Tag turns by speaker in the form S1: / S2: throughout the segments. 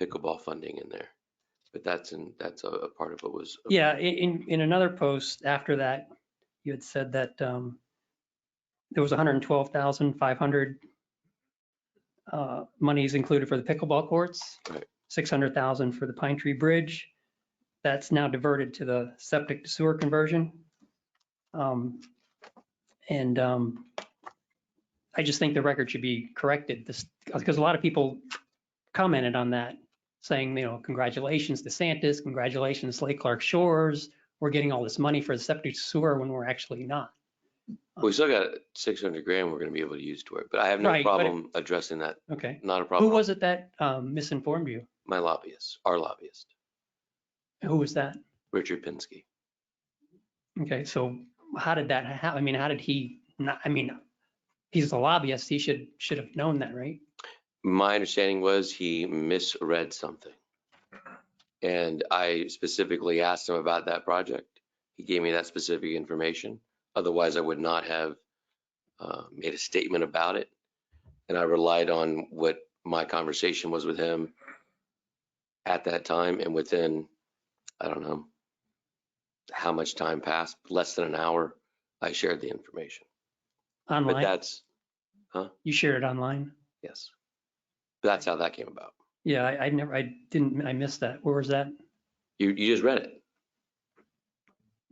S1: pickleball funding in there. But that's in, that's a, a part of what was.
S2: Yeah, i- in, in another post after that, you had said that um, there was 112,500 uh, monies included for the pickleball courts,
S1: Right.
S2: 600,000 for the Pine Tree Bridge. That's now diverted to the septic to sewer conversion. Um, And um, I just think the record should be corrected, this, because a lot of people commented on that saying, you know, congratulations DeSantis, congratulations Lake Clark Shores. We're getting all this money for the septic sewer when we're actually not.
S1: We still got six hundred grand we're gonna be able to use toward, it, but I have no
S2: Right, but it-
S1: problem addressing that.
S2: Okay.
S1: Not a
S2: Who
S1: problem.
S2: was it that um, misinformed you?
S1: My lobbyist, our lobbyist,
S2: Who was that?
S1: Richard Pinsky.
S2: Okay, so how did that happen? I mean, how did he not, I mean, he's a lobbyist. He should, should have known that, right?
S1: My understanding was he misread something. And I specifically asked him about that project. He gave me that specific information. Otherwise, I would not have uh, made a statement about it. And I relied on what my conversation was with him at that time and within, I don't know, how much time passed, less than an hour, I shared the information. But
S2: Online,
S1: that's,
S2: you shared it online?
S1: yes. That's how that came about.
S2: Yeah, I I never, I didn't, I missed that. Where was that?
S1: You, you just read it.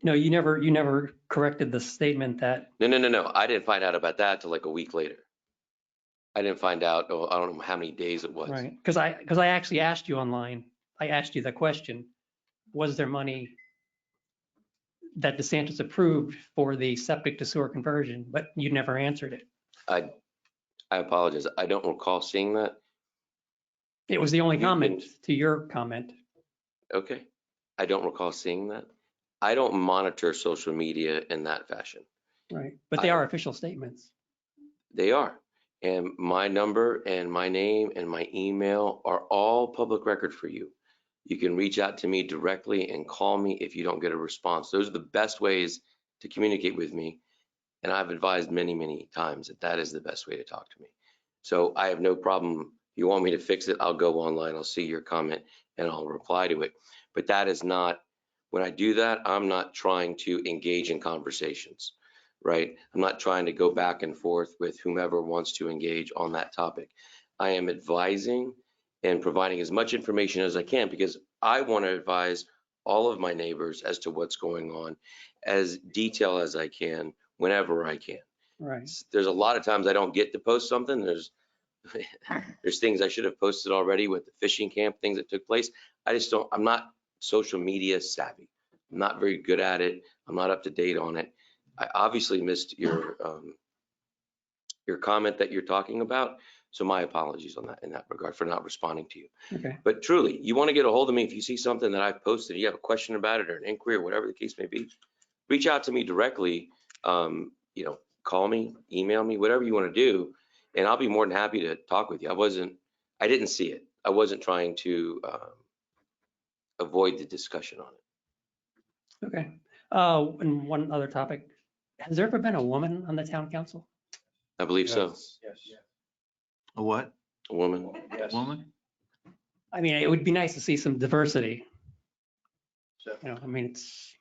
S2: No, you never, you never corrected the statement that,
S1: No, no, no, no. I didn't find out about that till like a week later. I didn't find out, oh, I don't know how many days it was.
S2: right? Because I, because I actually asked you online, I asked you the question, was there money that DeSantis approved for the septic to sewer conversion, but you never answered it.
S1: I apologize. I don't recall seeing that.
S2: It was the only
S1: You
S2: comment to your comment.
S1: Okay. I don't recall seeing that. I don't monitor social media in that fashion.
S2: Right, but they
S1: I-
S2: are official statements.
S1: They are. And my number and my name and my email are all public record for you. You can reach out to me directly and call me if you don't get a response. Those are the best ways to communicate with me. And I've advised many, many times that that is the best way to talk to me. So I have no problem. You want me to fix it? I'll go online. I'll see your comment and I'll reply to it. But that is not, when I do that, I'm not trying to engage in conversations right? I'm not trying to go back and forth with whomever wants to engage on that topic. I am advising and providing as much information as I can because I want to advise all of my neighbors as to what's going on as detail as I can whenever I can.
S2: Right,
S1: There's a lot of times I don't get to post something. There's there's things I should have posted already with the fishing camp, things that took place. I just don't, I'm not social media savvy. I'm not very good at it. I'm not up to date on it. I obviously missed your, um, your comment that you're talking about. So my apologies on that, in that regard for not responding to you.
S2: okay,
S1: But truly, you want to get a hold of me if you see something that I've posted, you have a question about it or an inquiry or whatever the case may be, reach out to me directly. Um, you know, call me, email me, whatever you want to do, and I'll be more than happy to talk with you. I wasn't, I didn't see it. I wasn't trying to um, avoid the discussion on it.
S2: okay. Uh, and one other topic, has there ever been a woman on the town council?
S1: I believe so.
S3: A what?
S1: A woman,
S4: Yes.
S3: Woman?
S2: I mean, it would be nice to see some diversity,
S4: So-
S2: you know, I mean, it's,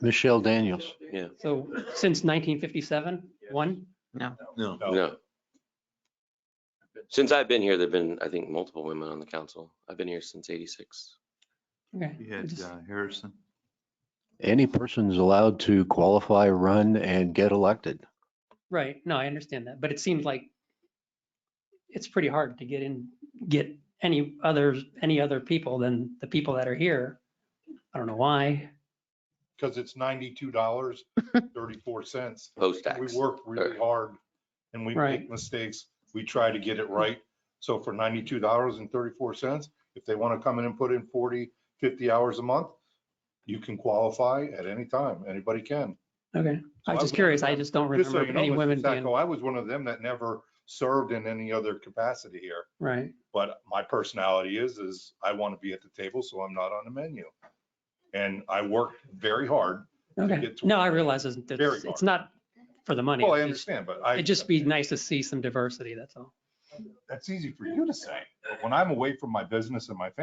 S5: Michelle Daniels.
S1: yeah,
S2: so since 1957, one?
S3: No.
S1: no. Since I've been here, there've been, I think, multiple women on the council. I've been here since '86.
S2: Okay.
S3: You
S2: I
S3: had
S2: just-
S3: uh, Harrison.
S5: Any person's allowed to qualify, run, and get elected.
S2: Right, no, I understand that, but it seems like it's pretty hard to get in, get any others, any other people than the people that are here. I don't know why.
S4: Because it's ninety-two dollars, thirty-four cents. We
S1: Post-tax.
S4: work really hard and we
S2: Uh. Right. Mm-hmm.
S4: make mistakes. We try to get it right. So for ninety-two dollars and thirty-four cents, if they want to come in and put in 40, 50 hours a month, you can qualify at any time. Anybody can.
S2: Okay, I was
S4: So I
S2: just
S4: would-
S2: curious, I just don't
S4: Just so
S2: remember
S4: you know,
S2: any
S4: Mr.
S2: women being,
S4: Sacco, I was one of them that never served in any other capacity here.
S2: right,
S4: But my personality is, is I want to be at the table, so I'm not on the menu. And I work very hard.
S2: okay.
S4: get to
S2: No,
S4: it.
S2: I realize it's,
S4: Very
S2: it's- it's
S4: hard.
S2: not for the money.
S4: Well, I
S2: it's just-
S4: understand, but I.
S2: It'd just be nice to see some diversity, that's all.
S4: That's easy for you to say. But when I'm away from my business and my family.